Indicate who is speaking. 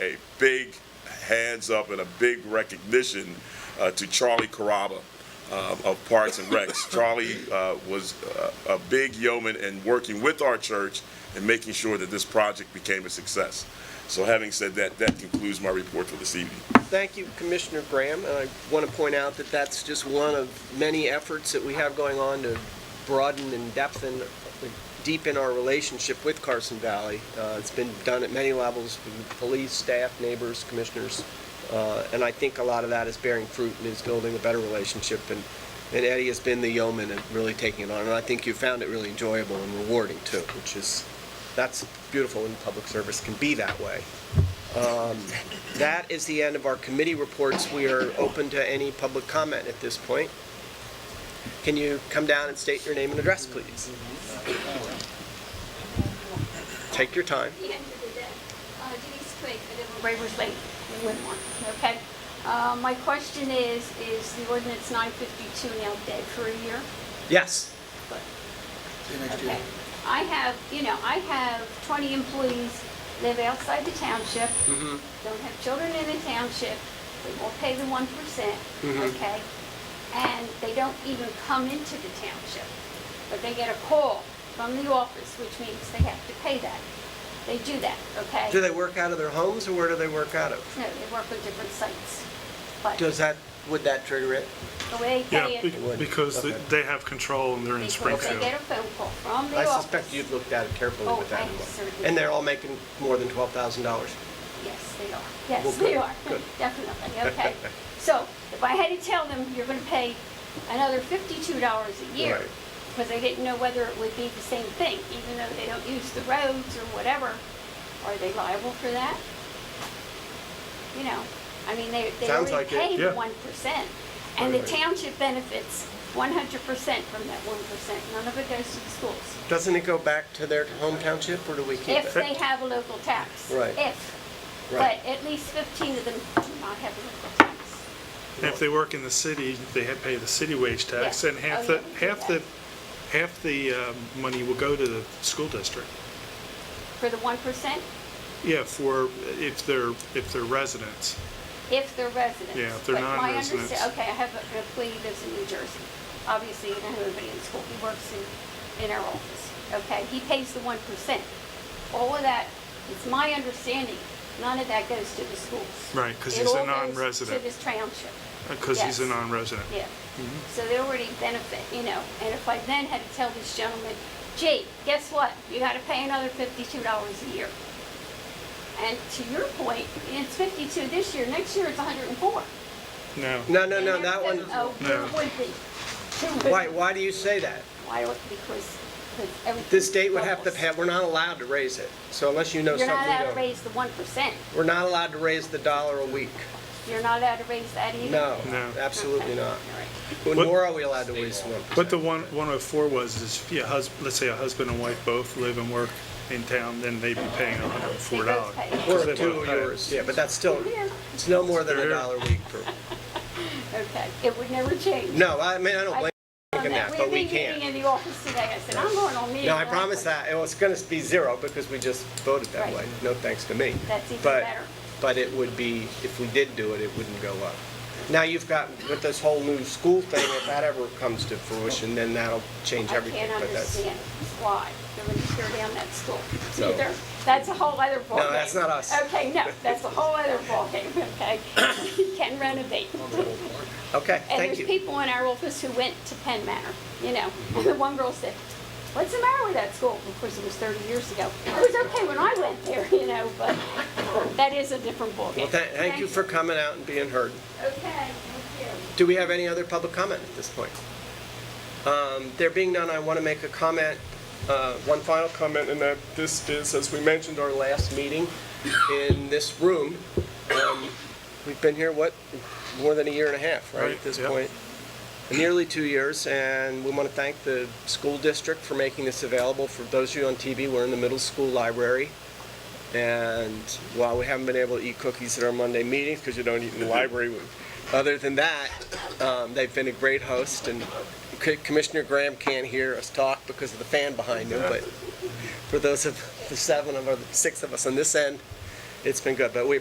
Speaker 1: a big hands up and a big recognition uh, to Charlie Caraba uh, of Parks and Recs. Charlie uh, was uh, a big yeoman in working with our church and making sure that this project became a success. So having said that, that concludes my report for this evening.
Speaker 2: Thank you, Commissioner Graham. And I want to point out that that's just one of many efforts that we have going on to broaden and depthen, deepen our relationship with Carson Valley. Uh, It's been done at many levels, from the police, staff, neighbors, commissioners. Uh, And I think a lot of that is bearing fruit and is building a better relationship. And and Eddie has been the yeoman and really taking it on. And I think you found it really enjoyable and rewarding too, which is, that's beautiful when public service can be that way. That is the end of our committee reports. We are open to any public comment at this point. Can you come down and state your name and address, please? Take your time.
Speaker 3: the end of the day. Uh, Denise Quigg, I live on Braver's Lake, in Winmore, okay? Uh, my question is, is the ordinance nine fifty-two now dead for a year?
Speaker 2: Yes.
Speaker 3: Okay. I have, you know, I have twenty employees, live outside the township,
Speaker 2: Mm-hmm.
Speaker 3: don't have children in the township, they won't pay the one percent,
Speaker 2: Mm-hmm.
Speaker 3: okay? And they don't even come into the township, but they get a call from the office, which means they have to pay that. They do that, okay?
Speaker 2: Do they work out of their homes or where do they work out of?
Speaker 3: No, they work with different sites, but the
Speaker 2: Does that, would that trigger it?
Speaker 3: way they pay
Speaker 4: Yeah,
Speaker 3: it,
Speaker 4: be-
Speaker 2: would.
Speaker 4: because they-
Speaker 2: Okay.
Speaker 4: they have control and they're in
Speaker 3: because they
Speaker 4: Springfield.
Speaker 3: get a phone call from the
Speaker 2: I
Speaker 3: office.
Speaker 2: suspect you've looked at it carefully
Speaker 3: Oh,
Speaker 2: with that
Speaker 3: I
Speaker 2: in mind.
Speaker 3: certainly
Speaker 2: And they're
Speaker 3: have.
Speaker 2: all making more than $12,000.
Speaker 3: Yes, they are.
Speaker 2: Well,
Speaker 3: Yes,
Speaker 2: good,
Speaker 3: they are.
Speaker 2: good.
Speaker 3: Definitely, okay. So if I had to tell them, you're going to pay another $52 a year,
Speaker 2: Right.
Speaker 3: because I didn't know whether it would be the same thing, even though they don't use the roads or whatever, are they liable for that? You know, I mean, they, they
Speaker 2: Sounds like
Speaker 3: already
Speaker 2: it,
Speaker 3: pay the
Speaker 4: yeah.
Speaker 3: 1%. And the
Speaker 2: Right.
Speaker 3: township benefits 100% from that 1%. None of it goes to the schools.
Speaker 2: Doesn't it go back to their home township or do we keep
Speaker 3: If
Speaker 2: it?
Speaker 3: they have a local tax.
Speaker 2: Right.
Speaker 3: If.
Speaker 2: Right.
Speaker 3: But at least 15 of them do not have a local tax.
Speaker 4: And if they work in the city, they have pay the city wage tax,
Speaker 3: Yeah.
Speaker 4: and half
Speaker 3: Oh, yeah, we
Speaker 4: the,
Speaker 3: do
Speaker 4: half the,
Speaker 3: that.
Speaker 4: half the um, money will go to the school district.
Speaker 3: For the 1%,
Speaker 4: Yeah, for, if they're, if they're residents.
Speaker 3: if they're residents.
Speaker 4: Yeah, if they're
Speaker 3: But my
Speaker 4: non-residents.
Speaker 3: understa- Okay, I have a- an employee who lives in New Jersey. Obviously, you don't have anybody in school. He works in, in our office. Okay, he pays the 1%. All of that, it's my understanding, none of that goes to the schools.
Speaker 4: Right, 'cause
Speaker 3: It
Speaker 4: he's a
Speaker 3: all goes
Speaker 4: non-resident.
Speaker 3: To the township.
Speaker 4: Because uh, he's a
Speaker 3: Yes.
Speaker 4: non-resident.
Speaker 3: Yeah.
Speaker 2: Mm-hmm.
Speaker 3: So they already benefit, you know, and if I then had to tell this gentleman, gee, guess what? You gotta pay another fifty-two dollars a year. And to your point, it's fifty-two this year, next year it's hundred and four.
Speaker 4: No.
Speaker 2: No, no, no, that one,
Speaker 3: Oh,
Speaker 4: No.
Speaker 3: it would be. It would
Speaker 2: why,
Speaker 3: be.
Speaker 2: why do you say that?
Speaker 3: Why, would- because, because everything.
Speaker 2: The state would have to
Speaker 3: doubles.
Speaker 2: pay, we're not allowed to raise it. So unless you know
Speaker 3: You're
Speaker 2: something
Speaker 3: not
Speaker 2: we
Speaker 3: allowed to
Speaker 2: don't.
Speaker 3: raise the one percent.
Speaker 2: We're not allowed to raise the dollar a week.
Speaker 3: You're not allowed to raise that either.
Speaker 2: No,
Speaker 4: No.
Speaker 2: absolutely
Speaker 3: Okay.
Speaker 2: not.
Speaker 3: All right.
Speaker 2: Well,
Speaker 4: What-
Speaker 2: Nor are we allowed to raise one.
Speaker 4: But the one, 104 was, is if you hus, let's say a husband and wife both live and work in town, then they'd be paying $104.
Speaker 3: They both pay.
Speaker 4: Because
Speaker 2: Or
Speaker 4: they
Speaker 2: a two
Speaker 4: both
Speaker 2: of
Speaker 4: pay it.
Speaker 2: yours, yeah, but that's still,
Speaker 3: Yeah.
Speaker 2: it's no more than a
Speaker 4: They're-
Speaker 2: dollar a week per,
Speaker 3: Okay, it would never change.
Speaker 2: no, I mean, I don't blame you for that,
Speaker 3: We
Speaker 2: but we
Speaker 3: We're meeting
Speaker 2: can't.
Speaker 3: in the office today, I said, I'm going on meeting.
Speaker 2: No, I promise that, it was gonna be zero because we just voted that
Speaker 3: Right.
Speaker 2: way, no thanks to me.
Speaker 3: That's even
Speaker 2: But-
Speaker 3: better.
Speaker 2: But it would be, if we did do it, it wouldn't go up. Now you've got, with this whole new school thing, if that ever comes to fruition, then that'll change
Speaker 3: I
Speaker 2: everything,
Speaker 3: can't
Speaker 2: but that's,
Speaker 3: understand why they're going to tear down that school.
Speaker 2: So-
Speaker 3: Either- That's a whole other ballgame.
Speaker 2: that's not us.
Speaker 3: Okay, no, that's a whole other ballgame, okay? You can renovate.
Speaker 2: okay,
Speaker 3: And
Speaker 2: thank
Speaker 3: there's
Speaker 2: you.
Speaker 3: people in our office who went to Penn Manor, you know, and
Speaker 2: Mm-hmm.
Speaker 3: the one girl said, what's the matter with that school? Of course, it was 30 years ago. It was okay when I went there, you know, but that is a different ballgame.
Speaker 2: Well, tha- thank you for coming out and being heard.
Speaker 3: Okay, thank you.
Speaker 2: Do we have any other public comment at this point? Um, There being none, I want to make a comment, uh, one final comment, and that this is, as we mentioned, our last meeting in this room. Um, We've been here, what, more than a year and a half, right, at
Speaker 4: Right,
Speaker 2: this
Speaker 4: yeah.
Speaker 2: point? Nearly two years, and we want to thank the school district for making this available. For those of you on TV, we're in the middle school library. And while we haven't been able to eat cookies at our Monday meetings, because you don't eat in the library, we- other than that, um, they've been a great host, and C- Commissioner Graham can't hear us talk because of the fan behind him, but for those of, the seven of, or the six of us on this end, it's been good, but we